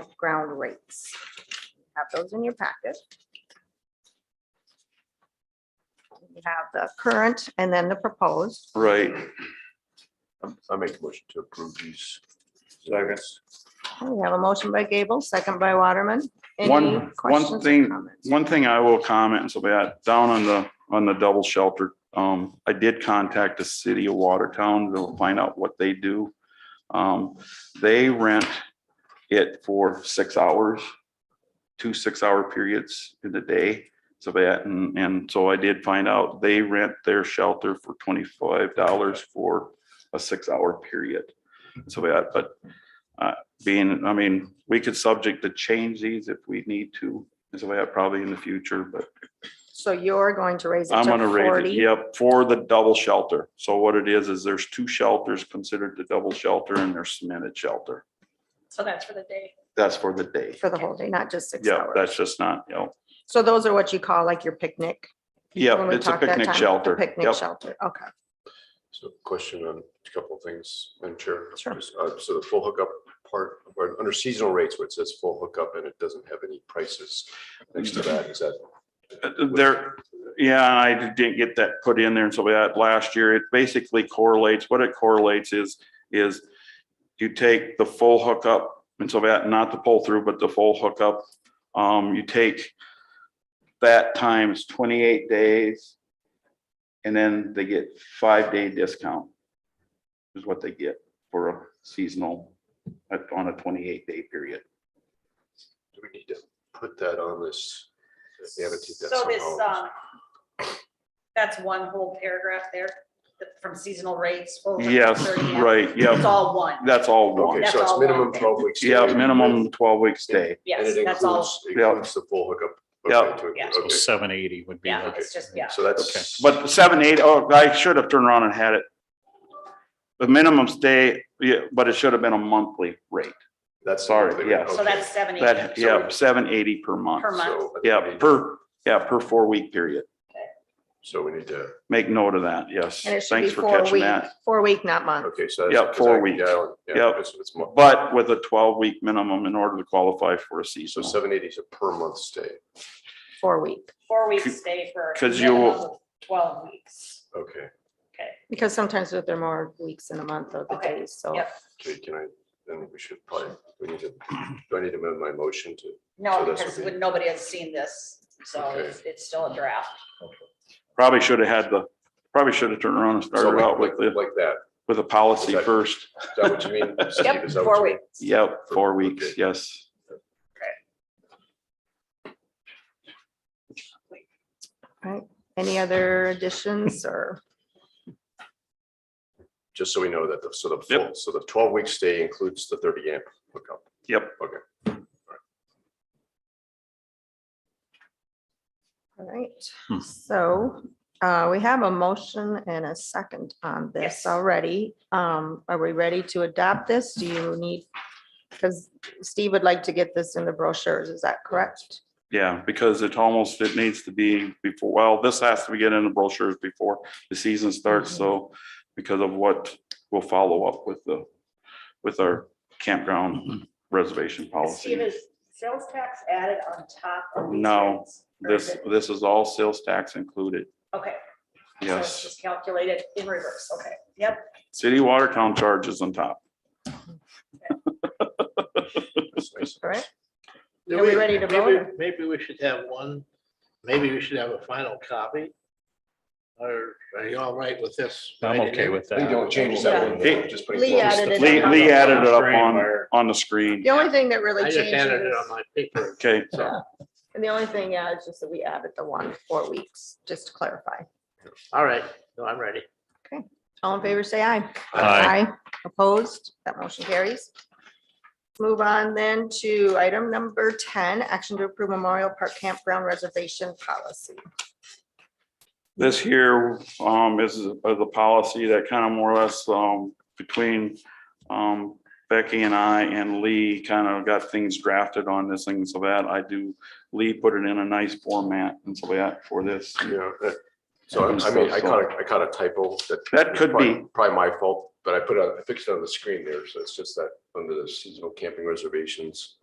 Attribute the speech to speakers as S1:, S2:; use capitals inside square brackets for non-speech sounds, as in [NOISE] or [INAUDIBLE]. S1: campground rates. Have those in your packet. You have the current and then the proposed.
S2: Right. I'm- I make a motion to approve these. Seconds.
S1: We have a motion by Gable, second by Waterman. Any
S3: One- one
S1: questions or
S3: thing-
S1: comments?
S3: One thing I will comment, and so that, down on the, on the double shelter, um, I did contact the city of Watertown to find out what they do. Um, they rent it for six hours, two six-hour periods in the day. So that, and, and so I did find out, they rent their shelter for twenty-five dollars for a six-hour period. So that, but, uh, being, I mean, we could subject to change these if we need to. Is the way I probably in the future, but
S1: So you're going to raise it to
S3: I'm gonna raise it,
S1: forty.
S3: yep, for the double shelter. So what it is, is there's two shelters considered the double shelter and there's cemented shelter.
S4: So that's for the day.
S3: That's for the day.
S1: For the whole day, not just six
S3: Yeah,
S1: hours.
S3: that's just not, you know,
S1: So those are what you call like your picnic? when
S3: yeah,
S1: we
S3: it's a
S1: talked that
S3: picnic
S1: time, the
S3: shelter.
S1: Picnic
S3: Yep.
S1: shelter, okay.
S5: So question on a couple of things, Madam Chair.
S1: Sure.
S5: Just, uh, So the full hookup part, or under seasonal rates, where it says full hookup and it doesn't have any prices next to that, is that?
S3: There, yeah, I didn't get that put in there and so we had last year. It basically correlates, what it correlates is, is you take the full hookup and so that, not the pull through, but the full hookup. Um, you take that times twenty-eight days and then they get five-day discount is what they get for a seasonal, uh, on a twenty-eight day period.
S5: Do we need to put that on this? annotate that
S4: So this,
S5: somehow?
S4: um, that's one whole paragraph there, the- from seasonal rates. over
S3: Yes,
S4: 30 hours.
S3: right,
S4: It's
S3: yeah,
S4: all one.
S3: that's all one.
S5: Okay, so
S4: That's
S5: it's
S4: all
S5: minimum
S4: one thing.
S5: twelve weeks.
S3: Yeah,
S5: stay
S3: minimum twelve week stay.
S5: And
S4: Yes,
S5: it
S4: that's all.
S5: includes, includes the full hookup.
S3: Yeah.
S5: Okay, to it,
S4: Yeah.
S5: okay.
S6: Seven eighty would be.
S4: Yeah,
S6: like-
S4: it's just, yeah.
S5: So that's.
S3: But the seven, eight, oh, I should have turned around and had it. The minimum stay, yeah, but it should have been a monthly rate.
S5: That's.
S3: sorry,
S5: okay.
S3: yeah.
S4: So that's seven eighty.
S3: That, yeah, seven eighty per month.
S4: Per month.
S5: So-
S3: Yeah, per, yeah, per four week period.
S5: So we need to,
S3: Make note of that, yes.
S1: And it should be
S3: Thanks for
S1: four
S3: catching
S1: week,
S3: that.
S1: four week, not month.
S5: okay, so.
S3: Yeah,
S5: that's-
S3: four
S5: yeah,
S3: weeks.
S5: Yeah.
S3: Yeah.
S5: it's- it's mo-
S3: But with a twelve week minimum in order to qualify for a
S5: So
S3: seasonal.
S5: seven eighty is a per month stay.
S1: four week,
S4: Four weeks stay for. a
S3: 'Cause you will-
S4: minimum of Twelve weeks.
S5: Okay,
S4: Okay.
S1: because sometimes there are more weeks in a month or the
S4: Okay,
S1: days, so.
S4: yep.
S5: okay, can I, then we should probably, we need to, do I need to amend my motion to?
S4: No,
S5: So that's
S4: because
S5: what we-
S4: when- nobody has seen this, so
S5: Okay.
S4: it's it's still a draft.
S3: Probably should have had the, probably should have turned around and
S5: So
S3: started
S5: like-
S3: out with the,
S5: Like that,
S3: with a policy
S5: Exactly.
S3: first.
S5: is that what
S4: [LAUGHS]
S5: you mean? Steve?
S4: Yep,
S5: Is that
S4: four
S5: what you mean?
S4: weeks.
S3: Yep, four weeks,
S5: Okay.
S3: yes.
S1: Any other additions or,
S5: Just so we know that, the so the
S3: Yep.
S5: full, so the twelve week stay includes the thirty amp hookup.
S3: Yep.
S5: Okay,
S1: all right,
S6: Hmm.
S1: so uh, we have a motion and a second on this
S4: Yes.
S1: already. Um, Are we ready to adopt this? Do you need, because Steve would like to get this in the brochures, is that correct?
S3: Yeah, because it almost, it needs to be before, well, this has to be getting in the brochures before the season starts, so because of what we'll follow up with the, with our campground reservation
S4: Steve,
S3: policy.
S4: is sales tax added on top of these
S3: No,
S4: rates? Or is
S3: This,
S4: it-
S3: this is all sales tax included.
S4: Okay. so it's
S3: Yes,
S4: Just calculated in reverse, okay, yep.
S3: city Watertown charges on
S4: [LAUGHS]
S3: top.
S5: that's nice.
S1: All right,
S7: Do
S1: Are we ready to vote?
S7: maybe- Maybe we should have one, maybe we should have a final copy. Or are you all right with this?
S6: I'm okay with that.
S5: We don't change
S4: Yeah.
S5: that one. though, just putting
S1: Lee
S5: full-
S1: added it
S3: Lee,
S1: up on
S3: Lee
S1: the-
S3: added it up on, on the screen.
S1: the only thing that
S7: I
S1: really
S7: just
S1: changes,
S7: handed it on my paper.
S3: Okay,
S1: and the only thing, yeah, is just that we added the one, four weeks, just to clarify.
S7: All right, no, I'm ready.
S1: All in favor, say aye.
S6: Aye.
S1: Opposed, that motion carries. Move on then to item number ten, action to approve Memorial Park Campground Reservation Policy.
S3: This here um, is uh, the policy that kind of more or less um, between um, Becky and I and Lee kind of got things drafted on this thing. So that I do, Lee put it in a nice format and so that for this.
S5: Yeah, that- so I I mean, I caught, a- I caught a typo that.
S3: That could be.
S5: Probably- Probably my fault, but I put it, on- I fixed it on the screen there, so it's just that under the seasonal camping reservations.